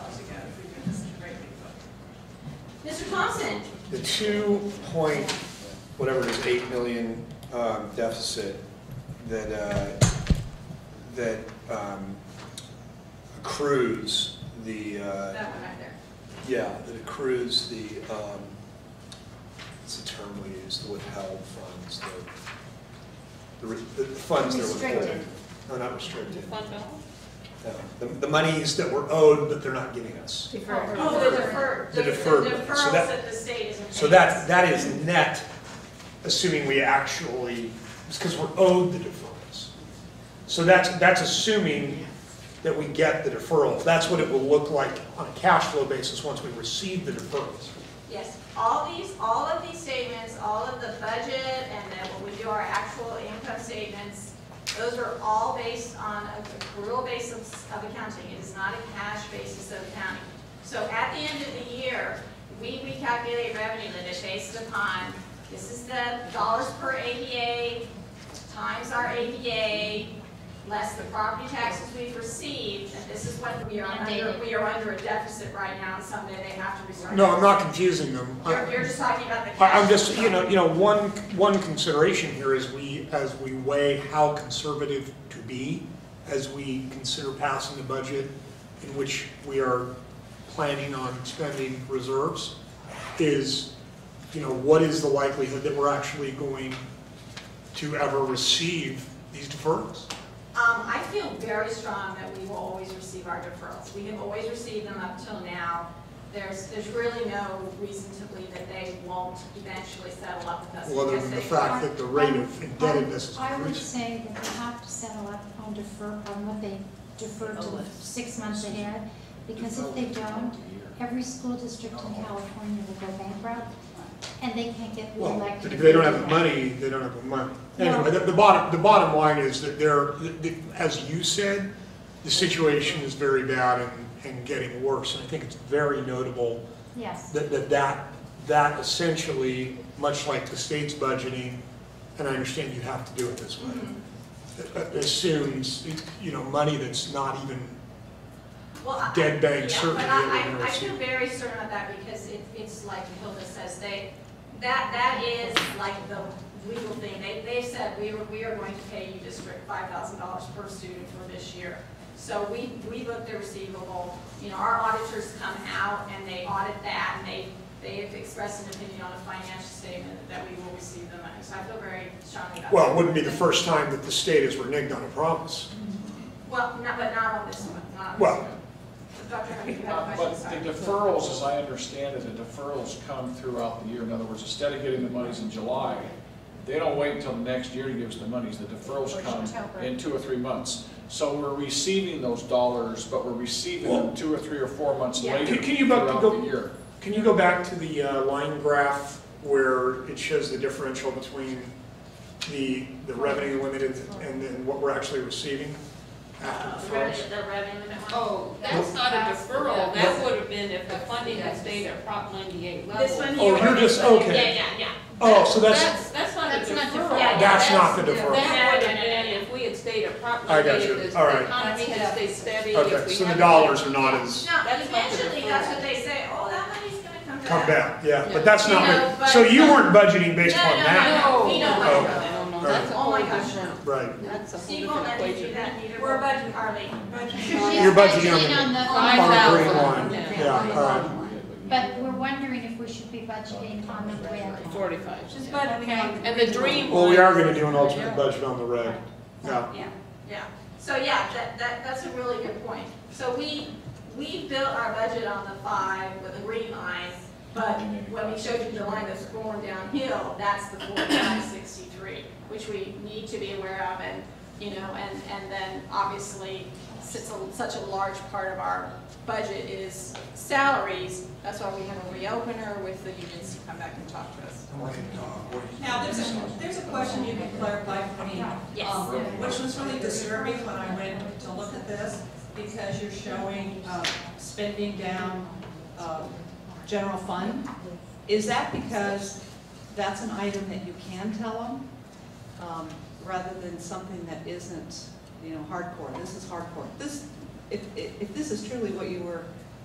Mr. Thompson? The two point, whatever it is, eight million um, deficit that, uh, that um, accrues the, uh, That one right there. yeah, that accrues the, um, what's the term we use, the withheld funds, the- the, re- the funds that were withheld. Restricted. No, not restricted. Fund No, The, the monies that were owed, but they're not giving us. Deferred. Oh, the deferred, The the the deferred one. So deferrals that- that the state isn't paying. So that, that is net, assuming we actually, because we're owed the deferrals. So that's, that's assuming that we get the deferrals. That's what it will look like on a cash flow basis once we receive the deferrals. Yes, all these, all of these statements, all of the budget, and then when we do our actual income statements, those are all based on a accrual basis of accounting, it is not a cash basis of accounting. So at the end of the year, we recalculate revenue that is based upon, this is the dollars per ADA, times our ADA, less the property taxes we've received, and this is what we are under, Mandated. we are under a deficit right now, and someday they have to restart. No, I'm not confusing them. You're, you're just talking about the I- cash. I'm just, you Um, know, you know, one, one consideration here is we, as we weigh how conservative to be, as we consider passing the budget in which we are planning on spending reserves, is, you know, what is the likelihood that we're actually going to ever receive these deferrals? Um, I feel very strong that we will always receive our deferrals. We have always received them up till now. There's, there's really no reason to believe that they won't eventually settle up with us. Well, other because than the they fact that the rate of indebtedness is I would increasing. say that they have to settle up on defer, on what they defer to six months ahead, because if they don't, every school district in California will go bankrupt, and they can't get Well, reelected. if they don't have the money, they don't have the money. Anyway, the, the bottom, the bottom line is that they're, the- the- as you said, the situation is very bad and, and getting worse. And I think it's very notable Yes, that, that, that, that essentially, much like the state's budgeting, and I understand you have to do it this way, that- that assumes, you know, money that's not even, Well, I- dead bang yeah, certainty But that we're I, gonna I, I receive. feel very certain of that because it, it's like Hilda says, they, that, that is like the legal thing. They, they said, we were, we are going to pay you district five thousand dollars per student for this year. So we, we looked at receivable, you know, our auditors come out and they audit that and they, they have expressed an opinion on a financial statement that we will receive the money. So I feel very strongly about that. well, it wouldn't be the first time that the state has reneged on a promise. Well, not, but not on this one, not on this Well- one. Dr. Hunter, you have a Uh, question, But sorry. the deferrals, as I understand it, the deferrals come throughout the year. In other words, instead of getting the monies in July, they don't wait until the next year to give us the monies. The deferrals come in two or three months. So we're receiving those dollars, but we're receiving them two or three or four months Yeah. later Can- can you back to throughout go- the year. Can you go back to the uh, line graph where it shows the differential between the, the revenue limited and then what we're actually receiving after the first? The revenue limit one? Oh, that's not a deferral, that would have been if the funding had stayed at Prop ninety-eight level. This one Oh, here? you're just, okay. Yeah, yeah, yeah. Oh, so that's, That's, that's not a That's not deferral. deferral. Yeah, yeah, that's not the That would deferral. have been if we had stayed at Prop I got ninety-eight, you. if All the right. economy had stayed steady. if Okay, we so the hadn't- dollars are not as, That's No, not the eventually, deferral. that's what they say, oh, that money's gonna come back. come back, yeah, Yeah. but that's You not, know, what- so but- you weren't budgeting based No, on no, that? No, We don't no, want to go there. no, no, All that's a right. whole Oh my different- gosh, no. Right, That's a whole Steve won't different let me do equation. that either. We're budgeting. Harley. You're she's budgeting on the- budgeting on the on five on the green thousand, line, Yeah. yeah, all right. but we're wondering if we should be budgeting on the red. Forty-five. She's budgeting on the. And the dream Well, we are one- gonna do an alternate budget on the red, yeah. Yeah, yeah. So, yeah, that, that, that's a really good point. So we, we built our budget on the five with the green line, but when we showed you the line that's going downhill, that's the forty-five sixty-three, which we need to be aware of and, you know, and, and then obviously, since a- such a large part of our budget is salaries, that's why we have a reopener with the unions to come back and talk to us. Now, there's a, there's a question you can clarify for me. Yes. um, Which was really disturbing when I went to look at this, because you're showing, uh, spending down, uh, general fund. Is that because that's an item that you can tell them, um, rather than something that isn't, you know, hardcore? This is hardcore. This, if, if, if this is truly what you were